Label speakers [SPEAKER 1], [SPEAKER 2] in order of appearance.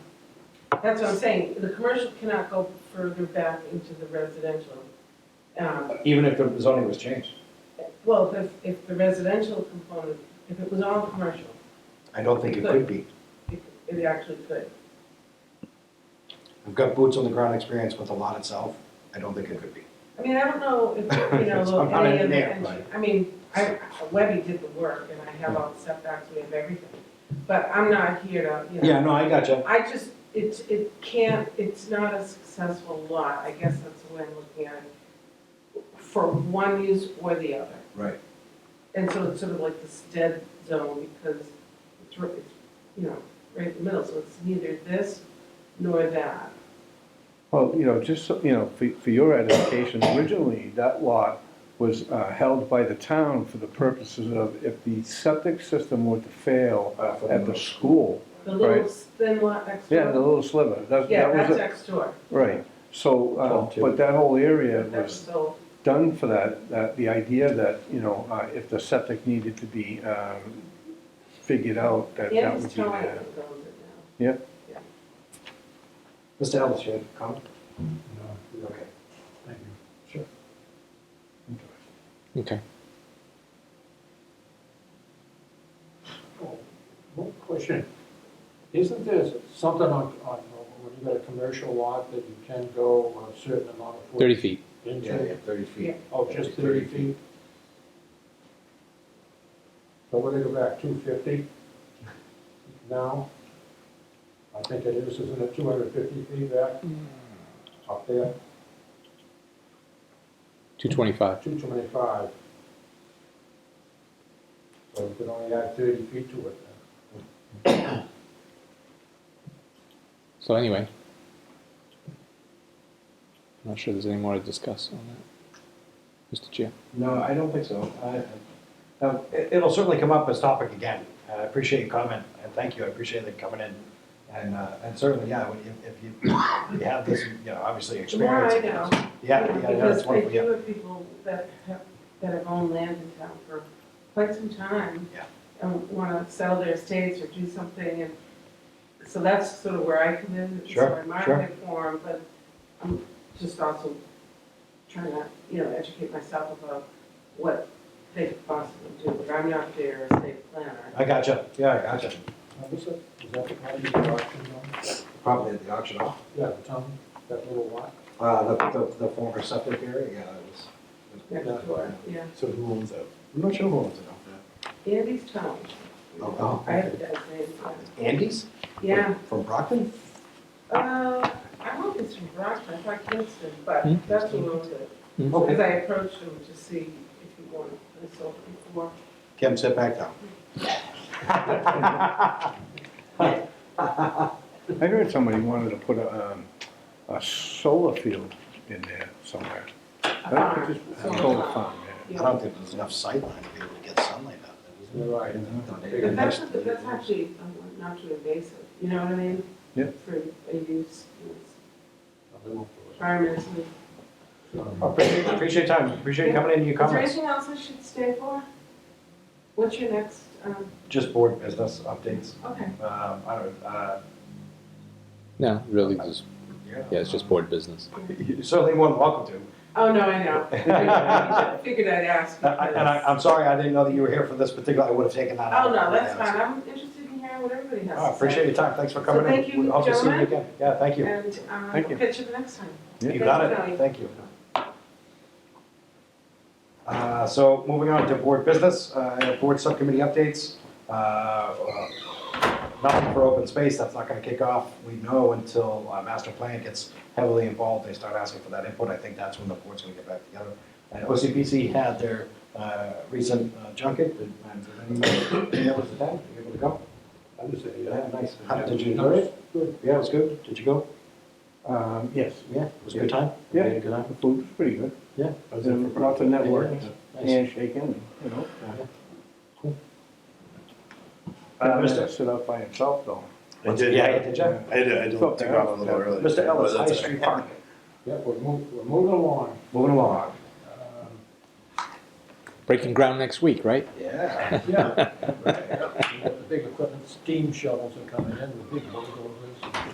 [SPEAKER 1] that's what I'm saying, the commercial cannot go further back into the residential. Um,
[SPEAKER 2] even if the zoning was changed.
[SPEAKER 1] Well, if, if the residential component, if it was all commercial,
[SPEAKER 3] I don't think it could be.
[SPEAKER 1] it it actually could.
[SPEAKER 3] I've got boots on the ground experience with the lot itself. I don't think it could be.
[SPEAKER 1] I mean, I don't know if, you know,
[SPEAKER 3] It's- I'm
[SPEAKER 1] look,
[SPEAKER 3] not
[SPEAKER 1] any
[SPEAKER 3] in
[SPEAKER 1] of the,
[SPEAKER 3] there,
[SPEAKER 1] engi-
[SPEAKER 3] right.
[SPEAKER 1] I mean, I, Webby did the work, and I have all the setbacks, we have everything. But I'm not here to, you know,
[SPEAKER 2] Yeah, no, I gotcha.
[SPEAKER 1] I just, it, it can't, it's not a successful lot, I guess that's the way I'm looking at it, for one use or the other.
[SPEAKER 3] Right.
[SPEAKER 1] And so it's sort of like this dead zone because it's, ri- it's, you know, right in the middle, so it's neither this nor that.
[SPEAKER 4] Well, you know, just, so- you know, for, for your edification, originally, that lot was uh, held by the town for the purposes of if the septic system were to fail
[SPEAKER 2] Uh, for
[SPEAKER 4] at the
[SPEAKER 2] most-
[SPEAKER 4] school,
[SPEAKER 1] The little
[SPEAKER 4] Right.
[SPEAKER 1] thin lot next door.
[SPEAKER 4] yeah, the little sliver, that,
[SPEAKER 1] Yeah,
[SPEAKER 4] that
[SPEAKER 1] that's
[SPEAKER 4] was, it.
[SPEAKER 1] next door,
[SPEAKER 4] right. So,
[SPEAKER 2] Twelve
[SPEAKER 4] uh,
[SPEAKER 2] two.
[SPEAKER 4] but that whole area
[SPEAKER 1] that's
[SPEAKER 4] was
[SPEAKER 1] so,
[SPEAKER 4] done for that, that, the idea that, you know, uh, if the septic needed to be um, figured out, that that
[SPEAKER 1] Andy's
[SPEAKER 4] would be
[SPEAKER 1] telling me
[SPEAKER 4] there.
[SPEAKER 1] it goes it now.
[SPEAKER 3] Mr. Ellis, you had a comment? No. Okay.
[SPEAKER 5] Okay.
[SPEAKER 6] Oh, One question. Isn't there something on, on, when you got a commercial lot that you can go a certain amount of? foot
[SPEAKER 5] 30 feet.
[SPEAKER 3] Yeah, yeah,
[SPEAKER 6] Into?
[SPEAKER 3] thirty feet.
[SPEAKER 6] Oh, just thirty feet? So what do they go back, two fifty? Now? I think it is, isn't it two hundred fifty feet back? Up there,
[SPEAKER 5] 225.
[SPEAKER 6] two twenty-five. So you can only add thirty feet to it then.
[SPEAKER 5] So anyway, I'm not sure there's any more to discuss on that, Mr. Chair.
[SPEAKER 2] No, I don't think so. I-
[SPEAKER 3] Now, um, it- it'll certainly come up as topic again. Uh, I appreciate your comment, and thank you, I appreciate you coming in. And, uh, and certainly, yeah, when you- if you, if you have this, you know, obviously
[SPEAKER 1] The more
[SPEAKER 3] experience.
[SPEAKER 1] I know.
[SPEAKER 3] Yeah, yeah, yeah,
[SPEAKER 1] Because
[SPEAKER 3] that's
[SPEAKER 1] they
[SPEAKER 3] wonderful, yeah.
[SPEAKER 1] do have people that have, that have owned land in town for quite some time.
[SPEAKER 3] Yeah.
[SPEAKER 1] And want to sell their estates or do something, and so that's sort of where I come in.
[SPEAKER 3] Sure,
[SPEAKER 1] So I market for 'em, but I'm just also trying to, you know, educate myself about what they could possibly do, but I'm not their estate planner.
[SPEAKER 3] I gotcha, yeah, I gotcha.
[SPEAKER 6] Now, this Is is that the part of the auction though?
[SPEAKER 3] Probably at the auction off.
[SPEAKER 6] Yeah, the town, that little lot.
[SPEAKER 3] Uh, the, the, the former septic area, yeah, it was.
[SPEAKER 1] Next door, yeah.
[SPEAKER 3] So who owns that? I'm not sure who owns it.
[SPEAKER 1] Andy's town,
[SPEAKER 3] Oh, oh,
[SPEAKER 1] I have
[SPEAKER 3] okay.
[SPEAKER 1] to name,
[SPEAKER 3] Andy's?
[SPEAKER 1] yeah.
[SPEAKER 3] From Brockton?
[SPEAKER 1] Uh, I hope it's from Brockton, I thought Kingston, but
[SPEAKER 5] Hmm?
[SPEAKER 1] that's a little bit.
[SPEAKER 5] Hmm.
[SPEAKER 1] Because I approached him to see if he wanted this over before.
[SPEAKER 3] Kim, sit back down.
[SPEAKER 4] I heard somebody wanted to put a, um, a solar field in there somewhere.
[SPEAKER 1] a
[SPEAKER 4] I
[SPEAKER 1] barn,
[SPEAKER 4] think it's just-
[SPEAKER 1] solar
[SPEAKER 4] A solar
[SPEAKER 1] farm.
[SPEAKER 4] farm, yeah.
[SPEAKER 3] I don't think there's enough sightline to be able to get sunlight out there,
[SPEAKER 6] You're right.
[SPEAKER 3] is there?
[SPEAKER 1] But that's, not- that's actually um, not too invasive, you know what I mean?
[SPEAKER 4] Yeah.
[SPEAKER 1] For a use, environmentally.
[SPEAKER 3] Oh, Appreciate, appreciate your time, appreciate you coming in, your
[SPEAKER 1] Is there
[SPEAKER 3] comments.
[SPEAKER 1] anything else I should stay for? What's your next, um,
[SPEAKER 3] Just board business updates.
[SPEAKER 1] okay,
[SPEAKER 3] Um, I don't, uh,
[SPEAKER 5] No, really, there's,
[SPEAKER 3] yeah.
[SPEAKER 5] yeah, it's just board business.
[SPEAKER 3] You're certainly more than welcome to.
[SPEAKER 1] oh, no, I know. I Figured I'd ask.
[SPEAKER 3] And I, and I-
[SPEAKER 1] because-
[SPEAKER 3] I'm sorry, I didn't know that you were here for this particular, I would have taken that out.
[SPEAKER 1] Oh, no, that's fine, I'm interested in hearing what everybody has to say.
[SPEAKER 3] Oh, I appreciate your time, thanks for coming in.
[SPEAKER 1] thank you,
[SPEAKER 3] We hope to see
[SPEAKER 1] gentlemen.
[SPEAKER 3] again. Yeah, thank you.
[SPEAKER 1] And um, I'll
[SPEAKER 4] Thank you.
[SPEAKER 1] catch you the next time.
[SPEAKER 3] You got
[SPEAKER 1] Thank you.
[SPEAKER 3] it, thank you. Uh, So moving on to board business, uh, I have board subcommittee updates. Uh, uh, Nothing for open space, that's not gonna kick off, we know, until uh, master plan gets heavily involved, they start asking for that input, I think that's when the board's gonna get back together. Uh, And OCPC had their uh, recent uh, junket, did um, did anybody, any others attend, were you able to go?
[SPEAKER 6] I would say,
[SPEAKER 3] Yeah,
[SPEAKER 6] yeah.
[SPEAKER 3] nice. How- Did you enjoy it?
[SPEAKER 6] Good.
[SPEAKER 3] Yeah, it was good, did you go? Uh,
[SPEAKER 4] Um, yes,
[SPEAKER 3] Yeah, it was a good time?
[SPEAKER 4] Yeah.
[SPEAKER 3] You had a Good time?
[SPEAKER 4] the food was pretty good,
[SPEAKER 3] Yeah.
[SPEAKER 4] and lots of networking,
[SPEAKER 3] Nice.
[SPEAKER 4] handshaking, you know.
[SPEAKER 3] Uh,
[SPEAKER 4] That
[SPEAKER 3] Mr.
[SPEAKER 4] man stood up by himself though.
[SPEAKER 7] I did,
[SPEAKER 3] Yeah,
[SPEAKER 7] yeah.
[SPEAKER 3] did you?
[SPEAKER 7] I did, I
[SPEAKER 4] It's up
[SPEAKER 7] did take
[SPEAKER 4] there.
[SPEAKER 7] off a little early.
[SPEAKER 3] Mr. Ellis,
[SPEAKER 7] But
[SPEAKER 3] High
[SPEAKER 7] that's all
[SPEAKER 3] Street
[SPEAKER 7] right.
[SPEAKER 3] Park.
[SPEAKER 6] Yeah, we're moving, we're moving along.
[SPEAKER 3] Moving along.
[SPEAKER 6] Um,
[SPEAKER 5] Breaking ground next week, right?
[SPEAKER 3] Yeah.
[SPEAKER 6] Yeah, Right, yeah. the big equipment, steam shovels are coming in, the big bulldozers.